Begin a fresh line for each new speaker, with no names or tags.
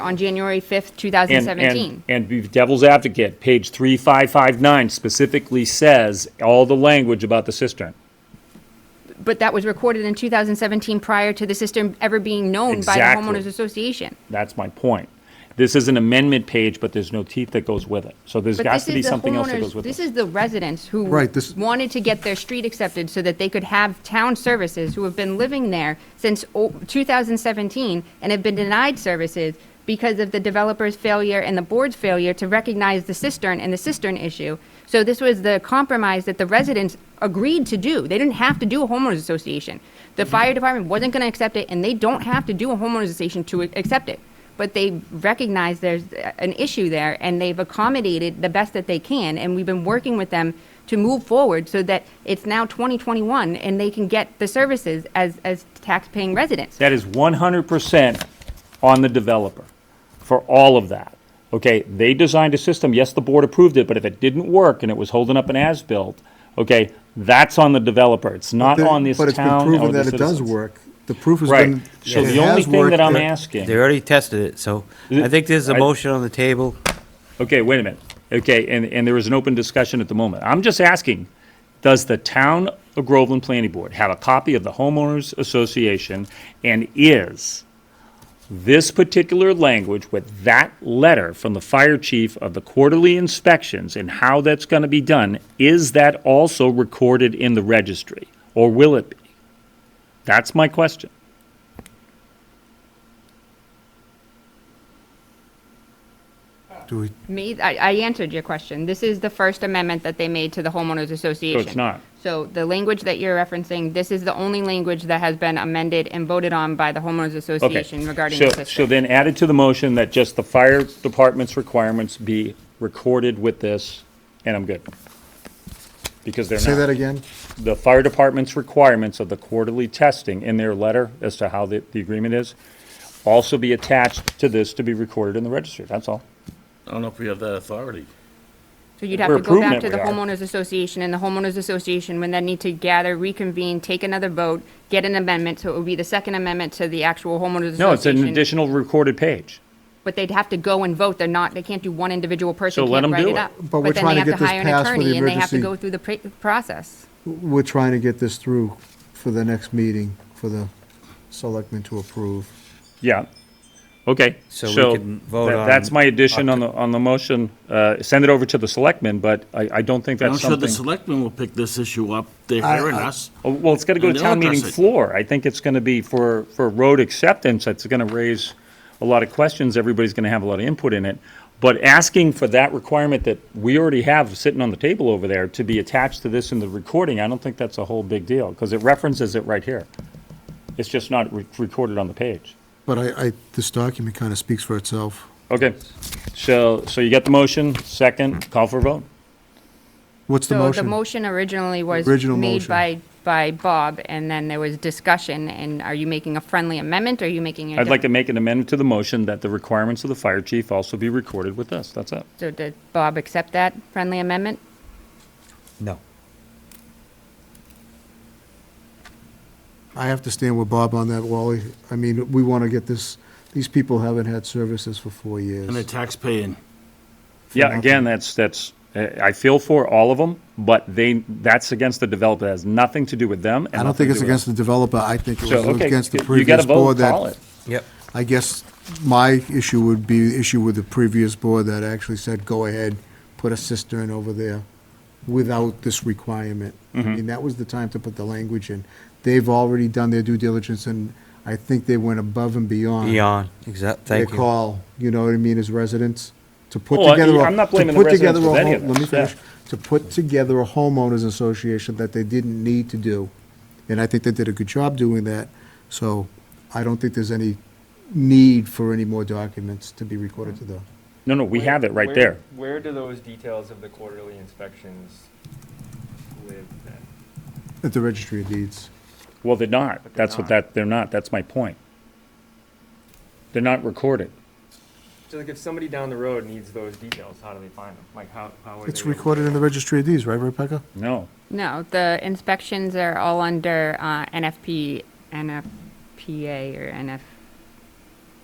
on January 5th,
And-
2017.
And, and be devil's advocate, page 3559 specifically says all the language about the cistern.
But that was recorded in 2017 prior to the system ever being known by the
Exactly.
homeowners association.
That's my point. This is an amendment page, but there's no teeth that goes with it. So there's
But
got
this
to be
is the
something else that goes
homeowners,
with
this
it.
is the residents who
Right, this-
wanted to get their street accepted so that they could have town services, who have been living there since o- 2017 and have been denied services because of the developer's failure and the board's failure to recognize the cistern and the cistern issue. So this was the compromise that the residents agreed to do. They didn't have to do a homeowners association. The fire department wasn't going to accept it, and they don't have to do a homeowners association to accept it but they recognize there's an issue there and they've accommodated the best that they can and we've been working with them to move forward so that it's now 2021 and they can get the services as, as tax-paying residents.
That is 100% on the developer for all of that. Okay, they designed a system, yes, the board approved it, but if it didn't work and it was holding up an as-built, okay, that's on the developer. It's not
But-
on this
But it's been
town or
proven
the
that it does
citizens.
work. The proof has
Right.
been, it has
So
worked.
the only thing that I'm asking.
They already tested it, so I think there's a
I-
motion on the table.
Okay, wait a minute. Okay, and, and there is an open discussion at the moment. I'm just asking, does the town of Groveland Planning Board have a copy of the homeowners association? And is this particular language with that letter from the fire chief of the quarterly inspections and how that's gonna be done, is that also recorded in the registry? Or will it be? That's my question.
Do we-
Me, I, I answered your question. This is the first amendment that they made to the homeowners association.
not.
So the language that you're referencing, this is the only language that has been amended and voted on by the homeowners
Okay.
association regarding
So-
the system.
So then added to the motion that just the fire department's requirements be recorded with this, and I'm good. Because they're
Say that
not,
again?
the fire department's requirements of the quarterly testing in their letter as to how the, the agreement is, also be attached to this to be recorded in the registry, that's all.
I don't know if we have that authority.
So you'd have
We're
to go back
improvement
to the
we are.
homeowners association, and the homeowners association would then need to gather, reconvene, take another vote, get an amendment, so it would be the second amendment to the actual homeowners association.
No, it's an additional recorded page.
But they'd have to go and vote, they're not, they can't do one individual person,
So let
can't
'em
write
do
it
it.
up.
But we're
then
trying
they
to
have
get this
hire an
passed for the
attorney, And they have to
emergency-
go through the pr- process.
We're trying to get this through for the next meeting, for the selectmen to approve.
Yeah, okay.
So we can vote
that-
on
That's my addition on the, on the motion, uh, send it over to the selectmen, but I, I don't think
I'm
that's
sure
something.
the selectmen will pick this issue up. They're
I-
hearing
I-
us.
Oh, Well, it's got to go
And
to
they'll
town meeting
address it.
floor. I think it's going to be for, for road acceptance, it's going to raise a lot of questions, everybody's going to have a lot of input in it. But asking for that requirement that we already have sitting on the table over there to be attached to this in the recording, I don't think that's a whole big deal, because it references it right here. It's just not re- recorded on the page.
But I, I, this document kind of speaks for itself.
Okay, so, so you got the motion, second, call for a vote?
What's the
So the
motion?
motion originally was
Original
made
motion.
by, by Bob, and then there was discussion, and are you making a friendly amendment, or are you making a?
I'd like
different-
to make an amendment to the motion that the requirements of the fire chief also be recorded with this, that's it.
So did Bob accept that friendly amendment?
No.
I have to stand with Bob on that, Wally. I mean, we want to get this, these people haven't had services for four
And they're
years.
taxpaying.
Yeah, again, that's, that's, uh, I feel for all of them, but they, that's against the developer, It has nothing to do with them. and
I don't think it's
nothing to do
against the developer, I think it
with us. So,
was
okay,
against the
you- you gotta
previous board
vote, call
that
it.
Yep.
I guess my issue would be the issue with the previous board that actually said, go ahead, put a cistern over there without this requirement. I mean, that was the time to put the language in. They've already done their due diligence, and I think they went above and beyond.
Beyond, exact,
Their
thank you.
call, you know what I mean, as residents, to put
Well, Oh, I-
together. a-
I'm not
to
blaming the
put together
residents with
a
any
home-
of
Let me
this, yeah.
finish. To put together a homeowners association that they didn't need to do. And I think they did a good job doing that, so I don't think there's any need for any more documents to be recorded to the.
No, no, we
Where-
have it right
where-
there.
Where do those details of the quarterly inspections live then?
At the registry of deeds.
Well, they're not,
But they're
that's what
not.
that, they're not, that's my point. They're not recorded.
So like if somebody down the road needs those details, how do they find them? Like how, how are they?
It's recorded in the registry of deeds, right, Rebecca?
No,
No, the inspections are all under uh, NFP, NFPA or NF,